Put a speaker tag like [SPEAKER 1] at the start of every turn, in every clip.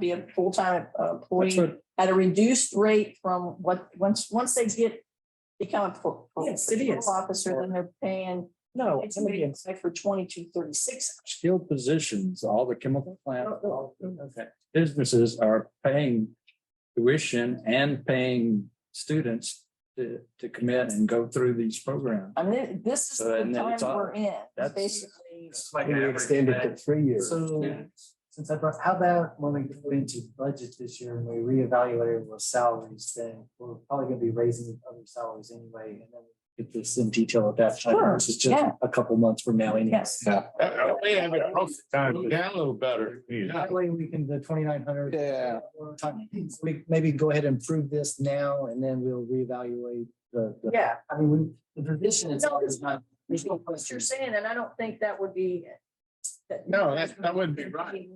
[SPEAKER 1] be a full-time
[SPEAKER 2] That's
[SPEAKER 1] employee
[SPEAKER 2] what,
[SPEAKER 1] at a reduced rate from what, once, once they get, become a pro- pro-
[SPEAKER 2] Yes, it
[SPEAKER 1] patrol
[SPEAKER 2] is. Oh,
[SPEAKER 1] officer, then they're paying,
[SPEAKER 2] no,
[SPEAKER 1] it's
[SPEAKER 2] somebody in
[SPEAKER 1] like for twenty-two thirty-six.
[SPEAKER 2] skilled positions, all the chemical plant,
[SPEAKER 3] Oh,
[SPEAKER 1] No,
[SPEAKER 2] okay, businesses are paying tuition and paying students to, to commit and go through these programs.
[SPEAKER 1] I mean, this is
[SPEAKER 2] So,
[SPEAKER 1] the
[SPEAKER 2] and then
[SPEAKER 1] time
[SPEAKER 2] it's all-
[SPEAKER 1] we're in,
[SPEAKER 2] that's-
[SPEAKER 1] basically.
[SPEAKER 4] We extended to three years.
[SPEAKER 3] So, since I brought, how about when we go into budget this year and we reevaluate those salaries, then we're probably gonna be raising other salaries anyway, and then. Get this in detail at that time,
[SPEAKER 1] Sure,
[SPEAKER 3] which is just
[SPEAKER 1] yeah.
[SPEAKER 3] a couple months from now anyway.
[SPEAKER 1] Yes.
[SPEAKER 5] We have it posted. Go Down a little better.
[SPEAKER 3] That way we can, the twenty-nine hundred.
[SPEAKER 4] Yeah.
[SPEAKER 3] We maybe go ahead and prove this now and then we'll reevaluate the, the,
[SPEAKER 1] Yeah,
[SPEAKER 3] I mean, we, the position
[SPEAKER 1] No,
[SPEAKER 3] itself
[SPEAKER 1] it's-
[SPEAKER 3] is not, there's no
[SPEAKER 1] what you're
[SPEAKER 3] question.
[SPEAKER 1] saying, and I don't think that would be. that-
[SPEAKER 5] No, that- that wouldn't be right.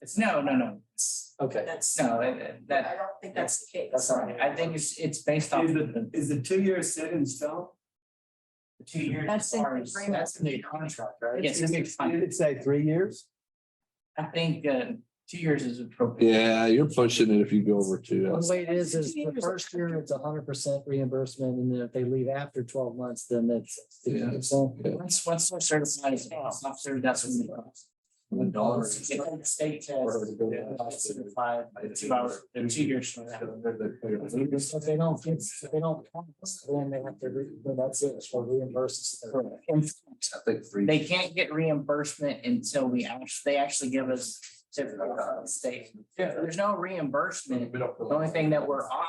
[SPEAKER 6] It's no, no, no. It's-
[SPEAKER 3] Okay.
[SPEAKER 1] That's,
[SPEAKER 6] No, it- it-
[SPEAKER 1] I
[SPEAKER 6] that,
[SPEAKER 1] don't think that's the case.
[SPEAKER 6] that's all right. I think it's, it's based off.
[SPEAKER 3] Is
[SPEAKER 6] the,
[SPEAKER 3] Is the two-year set in stone?
[SPEAKER 6] two years.
[SPEAKER 1] That's in
[SPEAKER 6] as far as-
[SPEAKER 1] agreement.
[SPEAKER 6] That's in the contract, right? Yes, it's
[SPEAKER 4] Did
[SPEAKER 6] fine.
[SPEAKER 4] it say three years?
[SPEAKER 6] I think, uh, two years is appropriate.
[SPEAKER 5] Yeah, you're pushing it if you go over two.
[SPEAKER 3] The way it is, is the first year, it's hundred percent reimbursement, and then if they leave after twelve months, then that's sixty percent.
[SPEAKER 6] Once, once they're certified as a police officer, that's when the.
[SPEAKER 3] The dollars.
[SPEAKER 6] It's like the state test.
[SPEAKER 3] Or to go to the
[SPEAKER 6] uh, Certified, the two hours, the two years. from now.
[SPEAKER 3] If they don't, get- if they don't, pass, then they have to, re- then that's it, for reimbursement.
[SPEAKER 4] I think three.
[SPEAKER 6] They can't get reimbursement until we actually, they actually give us. certificate of State, Yeah, there's no reimbursement The only thing that we're on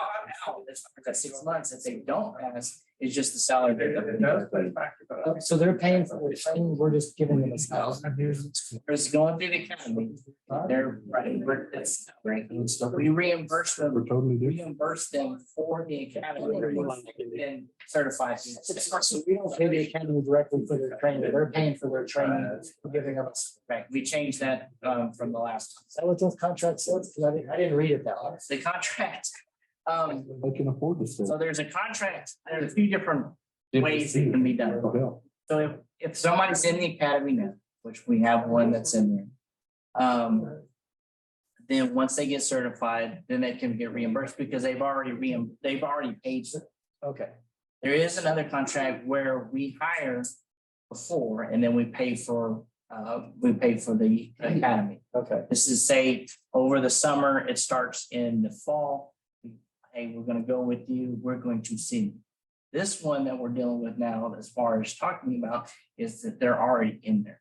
[SPEAKER 6] now, that's for that six months, if they don't pass, is just the salary. pickup.
[SPEAKER 3] Uh, So they're paying for the training, we're just giving them a thousand.
[SPEAKER 6] Or it's going through the county, they're running, but that's, we reimburse them,
[SPEAKER 4] totally
[SPEAKER 6] reimburse them for the academy. And certified.
[SPEAKER 3] So we don't pay the academy directly for their training, they're paying for their training, we're giving them. a- Is
[SPEAKER 6] Uh, Right, we changed that um from the last,
[SPEAKER 3] that what those contracts says? 'Cause I didn't, I didn't read it that way.
[SPEAKER 6] the contract. Um,
[SPEAKER 4] They can afford this.
[SPEAKER 6] so there's a contract, there's a few different ways it can be done. So if, if somebody's in the academy now, which we have one that's in there. Um. Then once they get certified, then they can get reimbursed because they've already reimb, they've already paid.
[SPEAKER 3] Okay.
[SPEAKER 6] There is another contract where we hire before and then we pay for, uh, we pay for the academy.
[SPEAKER 3] Okay.
[SPEAKER 6] This is say, over the summer, it starts in the fall. Hey, we're gonna go with you, we're going to see. This one that we're dealing with now, as far as talking about, is that they're already in there.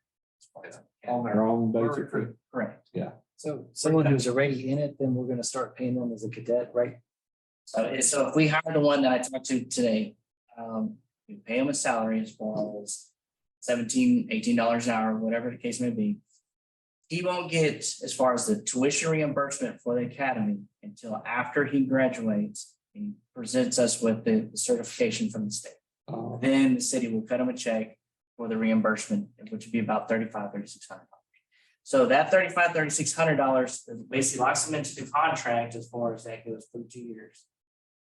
[SPEAKER 4] On their own, basically.
[SPEAKER 6] Correct. Correct.
[SPEAKER 3] So someone who's already in it, then we're gonna start paying them as a cadet, right?
[SPEAKER 6] So, it's- so if we hire the one that I talked to today, um, we pay them a salary as far as seventeen, eighteen dollars an hour, whatever the case may be. He won't get as far as the tuition reimbursement for the academy until after he graduates and presents us with the certification from the state.
[SPEAKER 4] Uh,
[SPEAKER 6] Then the city will cut them a check for the reimbursement, which would be about thirty-five, thirty-six hundred dollars. So that thirty-five, thirty-six hundred dollars basically locks them into the contract as far as that goes for two years.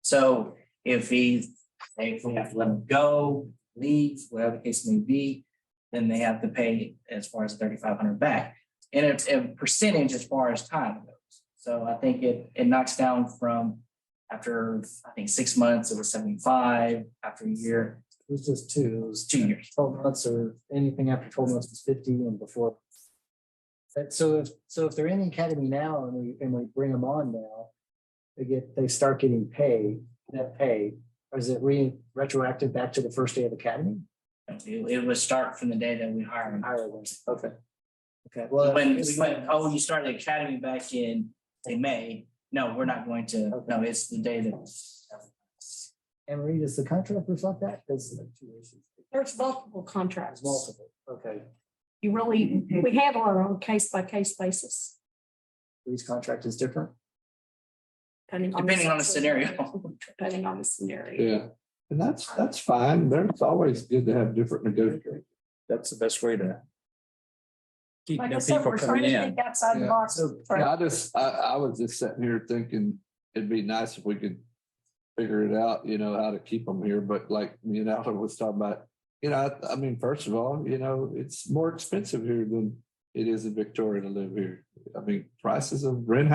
[SPEAKER 6] So if he, if we have to let him go, leave, whatever the case may be, then they have to pay as far as thirty-five hundred back. And it's a percentage as far as time goes. So I think it, it knocks down from after, I think, six months, it was seventy-five, after a year,
[SPEAKER 3] It was just two, it was
[SPEAKER 6] two years.
[SPEAKER 3] twelve months or anything after twelve months was fifty and before. But so if, so if they're in the academy now and we, and we bring them on now, they get, they start getting pay, that pay, or is it re, retroactive back to the first day of academy?
[SPEAKER 6] It it would start from the day that we hired him.
[SPEAKER 3] Higher ones, okay. Okay, well.
[SPEAKER 6] When we went, oh, you started the academy back in, in May. No, we're not going to, no, it's the day that.
[SPEAKER 3] And Reed, does the contract reflect that? That's two issues.
[SPEAKER 7] There's multiple contracts.
[SPEAKER 3] There's multiple, okay.
[SPEAKER 7] You really, we handle it on a case by case basis.
[SPEAKER 3] Reed's contract is different.
[SPEAKER 6] Depending on the scenario.
[SPEAKER 7] Depending on the scenario.
[SPEAKER 5] Yeah, and that's, that's fine. There's always good to have different negotiators.
[SPEAKER 2] that's the best way to. Keep
[SPEAKER 1] Like I
[SPEAKER 2] the
[SPEAKER 1] said,
[SPEAKER 2] people
[SPEAKER 1] we're trying
[SPEAKER 2] coming
[SPEAKER 1] to
[SPEAKER 2] in.
[SPEAKER 1] think outside the
[SPEAKER 5] Yeah.
[SPEAKER 1] box. Trying to
[SPEAKER 5] Yeah, I just, I, I was just sitting here thinking it'd be nice if we could figure it out, you know, how to keep them here. But like me and Alan was talking about, you know, I, I mean, first of all, you know, it's more expensive here than it is in Victoria to live here. I mean, prices of rent